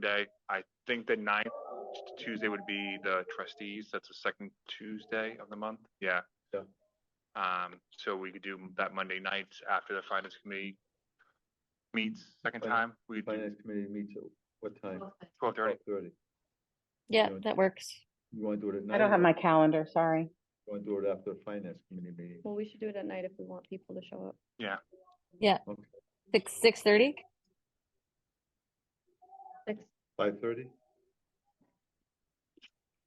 day. I think the ninth Tuesday would be the trustees. That's the second Tuesday of the month. Yeah. Yeah. Um, so we could do that Monday night after the finance committee meets second Finance- time. We could do Finance committee meets at what time? twelve thirty. Thirty. Yeah, Yeah. that works. You wanna do it at night? I don't have or my calendar, sorry. You wanna do it after the finance committee meeting? Well, we should do it at night if we want people to show up. Six six thirty. Six, Five thirty?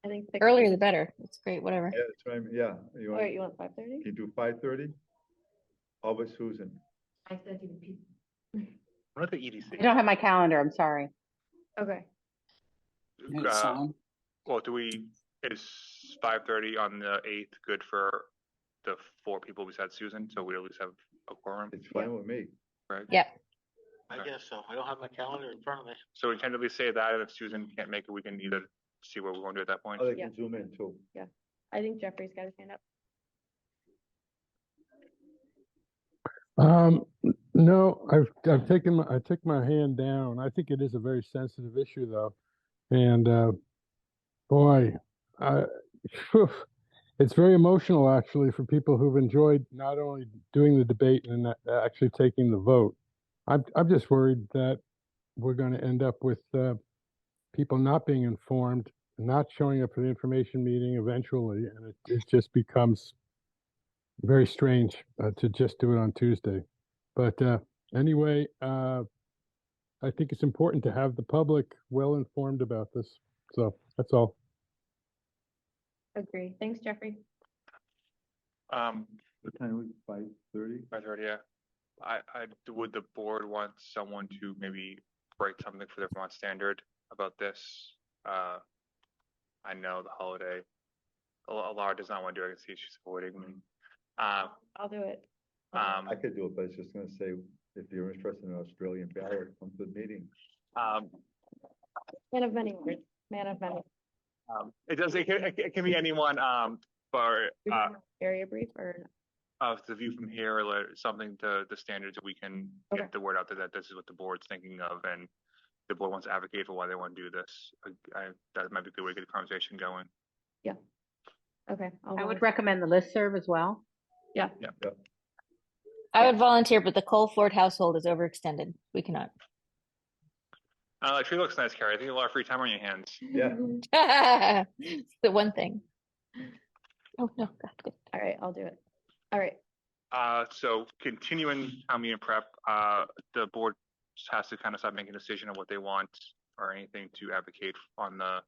I think. six Earlier is- the better. It's great. Whatever. Yeah, that's what I'm- yeah. You Wait, want, you want five thirty? you do five thirty? How about Susan? What about the E I EDC? don't have my calendar, I'm sorry. Okay, It's Uh, on. well, do we? Is five thirty on the eighth good for the four people besides Susan? So we at least have a quorum, It's fine with me. right? Yeah. I guess so. I don't have my calendar in front of me. So we tentatively say that, and if Susan can't make it, we can either see what we're going to do at that point. Oh, they Yeah. can zoom in too. I think Jeffrey's got his hand up. Um, n- no, I've, I've taken, my I took my hand down. I think it is a very sensitive issue though. And, uh, boy, I, it's very emotional actually for people who've enjoyed not only doing the debate and a- actually taking the vote. I'm, I'm just worried that we're going to end up with, uh, people not being informed, not showing up for the information meeting eventually. And it, it just becomes very strange uh, to just do it on Tuesday. But uh, anyway, uh, I think it's important to have the public well informed about this. So that's all. Agree. Thanks, Jeffrey. Um, What time was five thirty? I've heard, yeah. I, I, would the board want someone to maybe write something for the Vermont Standard about this? Uh, I know the holiday, Al- Alara does not want to do it, I can see she's avoiding me. Um, I'll do it. um, I could do it, but I was just gonna say, if you're interested in Australian ballot, come to the meeting. um, Man of many words, man of many. um, it does, it can, it can be anyone, um, for, We uh, can have Area brief or, of the view from here, or like something to the standards that we can Okay. get the word out there that this is what the board's thinking of and the board wants to advocate for why they want to do this. I- I, that might be a good way to get the conversation going. okay. I'll I would volunteer. recommend the listserv as well. I would volunteer, but the Cole Ford household is overextended. We cannot. Uh, tree looks nice, Carrie. I think you have a lot of free time on your hands. Yeah. it's the one thing. Oh no, God, good. All right, I'll do it. All right, Uh, so continuing town meeting prep, uh, the board has to kind of start making a decision on what they want or anything to advocate on the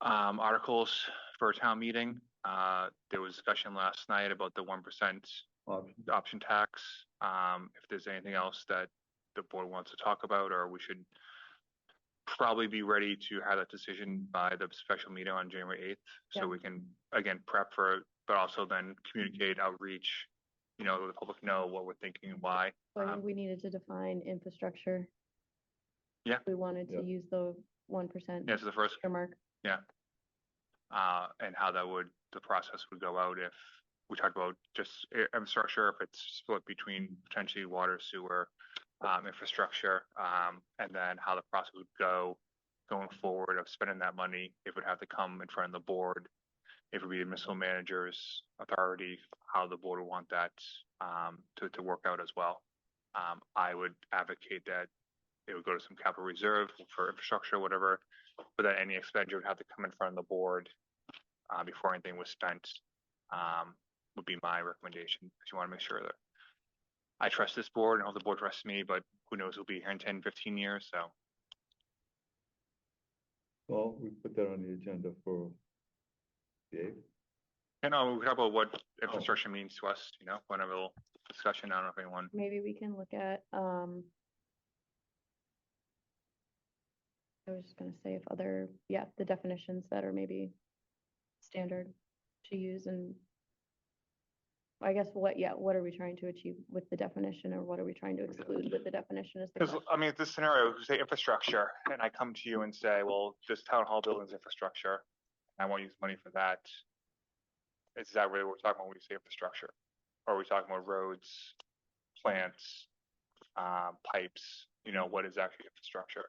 um, articles for a town meeting. Uh, there was discussion last night about the one percent Option. option tax. Um, if there's anything else that the board wants to talk about, or we should probably be ready to have that decision by the special meeting on January eighth, Yeah. so we can, again, prep for, it, but also then communicate outreach, you know, let the public know what we're thinking and why. so I Uh, Um, think we needed to define infrastructure. Yeah. We wanted Yeah. to use the one percent That's the first, earmark. uh, and how that would, the process would go out if we talked about just i- infrastructure, if it's split between potentially water, sewer, um, infrastructure, um, and then how the process would go going forward of spending that money, if it would have to come in front of the board, if it would be the municipal manager's authority, how the board would want that, um, to, to work out as well. Um, I would advocate that it would go to some capital reserve for infrastructure, whatever, but that any expenditure would have to come in front of the board uh, before anything was spent, um, would be my recommendation, because you want to make sure that I trust this board and hope the board trusts me, but who knows, we'll be here in 10, 15 years, so. Well, we put that on the agenda for the eighth. And, uh, we could talk about what infrastructure means to us, you know, whenever we'll discussion, I don't know if anyone, Um, Maybe we can look at, um, I was just gonna say if other, yeah, the definitions that are maybe standard to use and I guess what, yeah, what are we trying to achieve with the definition or what are we trying to exclude with the definition is the because, question. I mean, this scenario, we say infrastructure, and I come to you and say, well, this town hall building's infrastructure, I won't use money for that. Is that really what we're talking about when we say infrastructure? Or Are we talking about roads, um, plants, uh, pipes, you know, what is actually infrastructure?